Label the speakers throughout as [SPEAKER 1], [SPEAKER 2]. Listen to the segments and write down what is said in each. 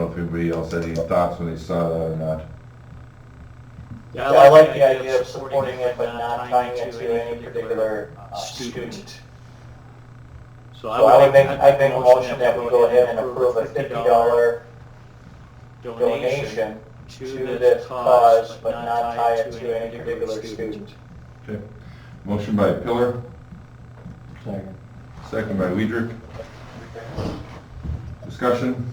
[SPEAKER 1] everybody else had any thoughts when they saw that or not.
[SPEAKER 2] Yeah, I like the idea of supporting it, but not tying it to any particular uh, student.
[SPEAKER 3] So
[SPEAKER 2] So I would make, I'd make a motion that we go ahead and approve a fifty dollar donation to this cause, but not tie it to any particular student.
[SPEAKER 1] Okay. Motion by Pillar,
[SPEAKER 4] Second.
[SPEAKER 1] second by Weidrich. Discussion?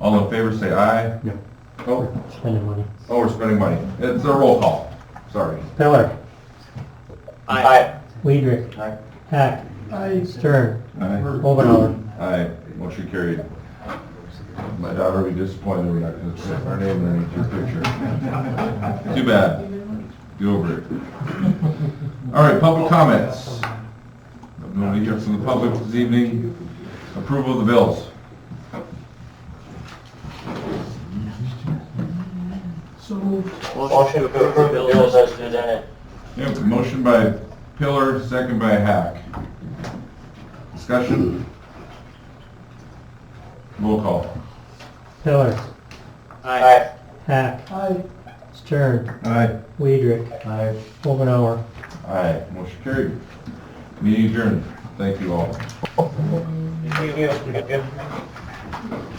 [SPEAKER 1] All in favor, say aye.
[SPEAKER 4] No.
[SPEAKER 1] Oh,
[SPEAKER 4] Spending money.
[SPEAKER 1] oh, we're spending money. It's a roll call. Sorry.
[SPEAKER 4] Pillar.
[SPEAKER 2] Aye.
[SPEAKER 4] Weidrich.
[SPEAKER 1] Aye.
[SPEAKER 4] Hack. Stern.
[SPEAKER 1] Aye.
[SPEAKER 4] Oh, Ovinor.
[SPEAKER 1] Aye. Motion carried. My daughter will be disappointed we're not going to put our name underneath your picture. Too bad. Get over it. All right, public comments. Nobody here from the public this evening. Approval of the bills.
[SPEAKER 2] Motion to approve the bills as presented.
[SPEAKER 1] Yeah, motion by Pillar, second by Hack. Discussion? Roll call.
[SPEAKER 4] Pillar.
[SPEAKER 2] Aye.
[SPEAKER 4] Hack. Stern.
[SPEAKER 1] Aye.
[SPEAKER 4] Weidrich. Aye. Ovinor.
[SPEAKER 1] Aye, motion carried. Meeting adjourned. Thank you all.
[SPEAKER 2] You- you- you-